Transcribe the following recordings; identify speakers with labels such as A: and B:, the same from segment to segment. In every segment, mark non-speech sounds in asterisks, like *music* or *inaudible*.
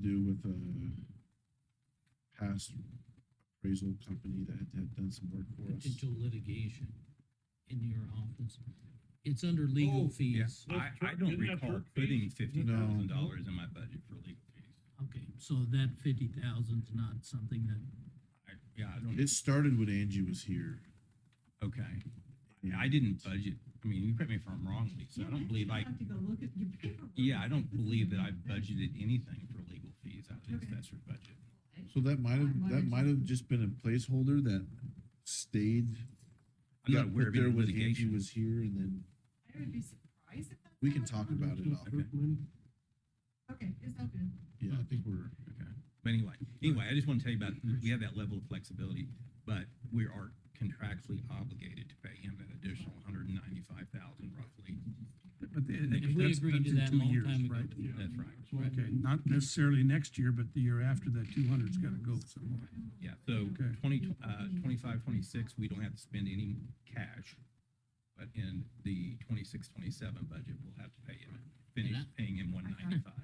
A: do with a past appraisal company that had done some work for us.
B: potential litigation in your office. It's under legal
C: Oh, yeah.
B: fees.
C: I,
D: Those
C: I
D: twer-
C: don't
D: isn't that
C: recall
D: twerk fees?
C: putting fifty
A: Isn't
C: thousand
A: that-
C: dollars in my budget for legal fees.
B: Okay, so that fifty thousand's not something that,
C: I, yeah, I don't,
A: It started when Angie was here.
C: okay. Yeah, I didn't budget, I mean, you correct me if I'm wrong, Lisa, I don't believe I,
E: Have to go look at your paperwork.
C: yeah, I don't believe that I budgeted anything for legal fees out of the
E: Okay.
C: assessor budget.
A: So that might have,
E: Why- why
A: that
E: did
A: might
E: you-
A: have just been a placeholder that stayed.
C: I'm not
A: got
C: aware
A: put
C: of
A: there
C: any
A: when Angie
C: litigation.
A: was here and then
E: I would be surprised if that's.
A: we
E: how
A: can
E: it
A: talk
E: worked.
A: about it off.
E: Okay, it's open.
A: Yeah, I think we're,
C: Okay, but anyway, anyway, I just want to tell you about, we have that level of flexibility, but we are contractually obligated to pay him that additional hundred and ninety-five thousand roughly.
D: But the-
B: And we
D: that's-
B: agreed
D: that's
B: to
D: in
B: that a
D: two
B: long
D: years,
B: time ago.
D: right?
C: That's right.
D: Okay, not necessarily next year, but the year after that, two hundred's gotta go somewhere.
C: Yeah, so
D: Okay.
C: twenty, uh, twenty-five, twenty-six, we don't have to spend any cash. But in the twenty-six, twenty-seven budget, we'll have to pay him, finish
B: that-
C: paying him one ninety-five.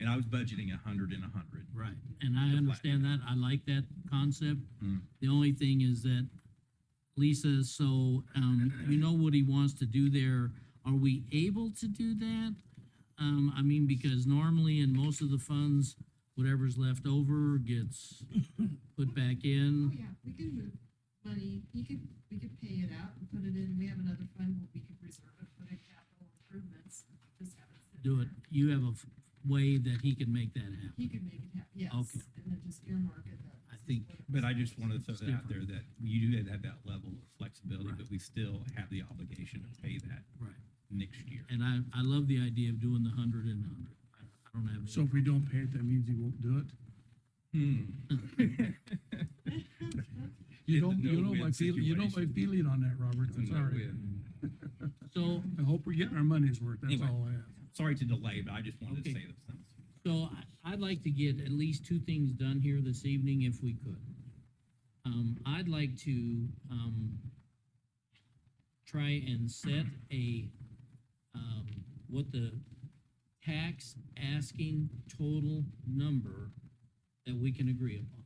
C: And I was budgeting a hundred and a hundred.
B: right, and I
C: flat.
B: understand that, I like that concept.
C: Mm.
B: The only thing is that Lisa, so, um, you know what he wants to do there, are we able to do that? Um, I mean, because normally in most of the funds, whatever's left over gets put back
E: Oh,
B: in.
E: yeah, we can move money, you could, we could pay it out and put it in, we have another fund, where we could reserve it for the capital improvements, just have it. sit
B: Do it,
E: there.
B: you have a f- way that he can make that happen.
E: He could make it happen, yes,
B: Okay.
E: and then just earmark it. that
B: I
E: this is
B: think-
E: what it
C: But I
E: was.
C: just wanted to throw that out there that you do have that level of flexibility,
B: Right.
C: but we still have the obligation to pay that
B: Right,
C: next year.
B: and I, I love the idea of doing the hundred and hundred. I I don't have. any-
D: So if we don't pay it, that means he won't do it? Hmm. *laughs*
C: It's
D: You
C: a
D: don't, you know
C: no-win
D: my feeling, you know my
C: situation.
D: feeling on that, Robert,
C: It's a
D: I'm sorry.
C: no-win.
B: So,
D: I hope we're getting our money's worth, that's
C: Anyway.
D: all I ask.
C: Sorry to delay, but I just wanted to
B: Okay.
C: say those things.
B: so I, I'd like to get at least two things done here this evening if we could. Um, I'd like to, um, try and set a, um, what the tax asking total number that we can agree upon.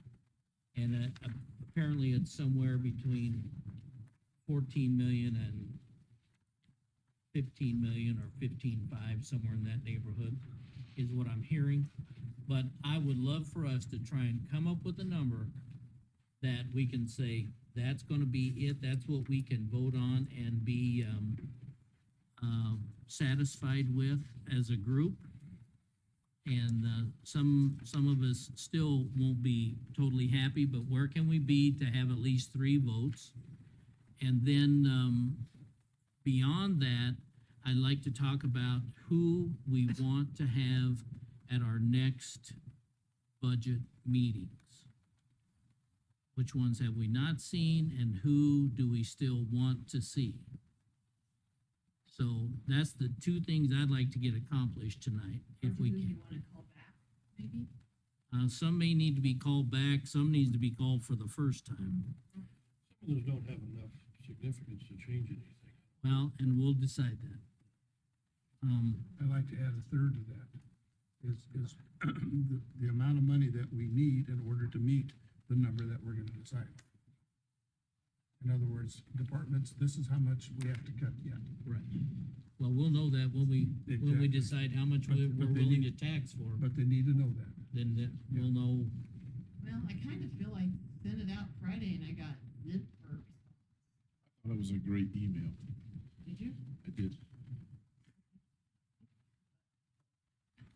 B: And, uh, apparently it's somewhere between fourteen million and fifteen million or fifteen-five, somewhere in that neighborhood is what I'm hearing. But I would love for us to try and come up with a number that we can say, that's gonna be it, that's what we can vote on and be, um, um, satisfied with as a group. And, uh, some, some of us still won't be totally happy, but where can we be to have at least three votes? And then, um, beyond that, I'd like to talk about who we want to have at our next budget meetings. Which ones have we not seen and who do we still want to see? So that's the two things I'd like to get accomplished tonight,
E: Or
B: if we
E: do
B: can.
E: You wanna call back, maybe?
B: Uh, some may need to be called back, some needs to be called for the first time.
F: Some of those don't have enough significance to change anything.
B: Well, and we'll decide that. Um,
D: I'd like to add a third to that, is, is *clears throat* the, the amount of money that we need in order to meet the number that we're gonna decide. In other words, departments, this is how much we have to cut yet.
B: Right. Well, we'll know that when we, when we
D: Exactly.
B: decide how much
D: But-
B: we're
D: but
B: we're
D: they
B: willing to
D: need-
B: tax for,
D: But they need to know that.
B: then that, we'll know.
E: Well, I kind of feel like sent it out Friday and I got nip or,
A: that was a great email.
E: did you?
A: I did.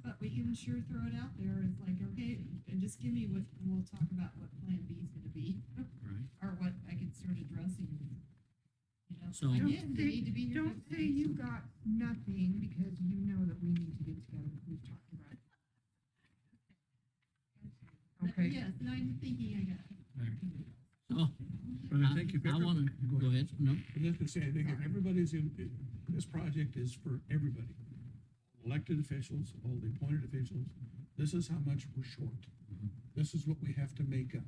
E: But we can sure throw it out there. It's like, okay, and just give me what, and we'll talk about what plan B is gonna be,
B: Right.
E: or what I can start addressing. You know,
B: So-
G: Don't
E: again, they
G: say-
E: need to be here.
G: Don't
E: for
G: say you got nothing, because you know that we need to get together, we've talked about it.
E: things.
G: Okay,
E: Yes, no, I'm thinking I got.
B: So,
D: But I
B: Oh, I,
D: think if.
B: I
D: every-
B: wanna,
D: Go
B: go
D: ahead.
B: ahead, no,
F: I was just gonna say, I think if everybody's in, this project is for everybody. Elected officials, all the appointed officials, this is how much we're short. This is what we have to make up.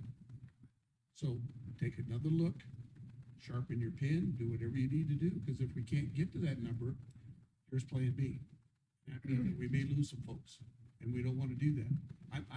F: So take another look, sharpen your pen, do whatever you need to do, because if we can't get to that number, here's plan B. That means that we may lose some folks, and we don't want to do that.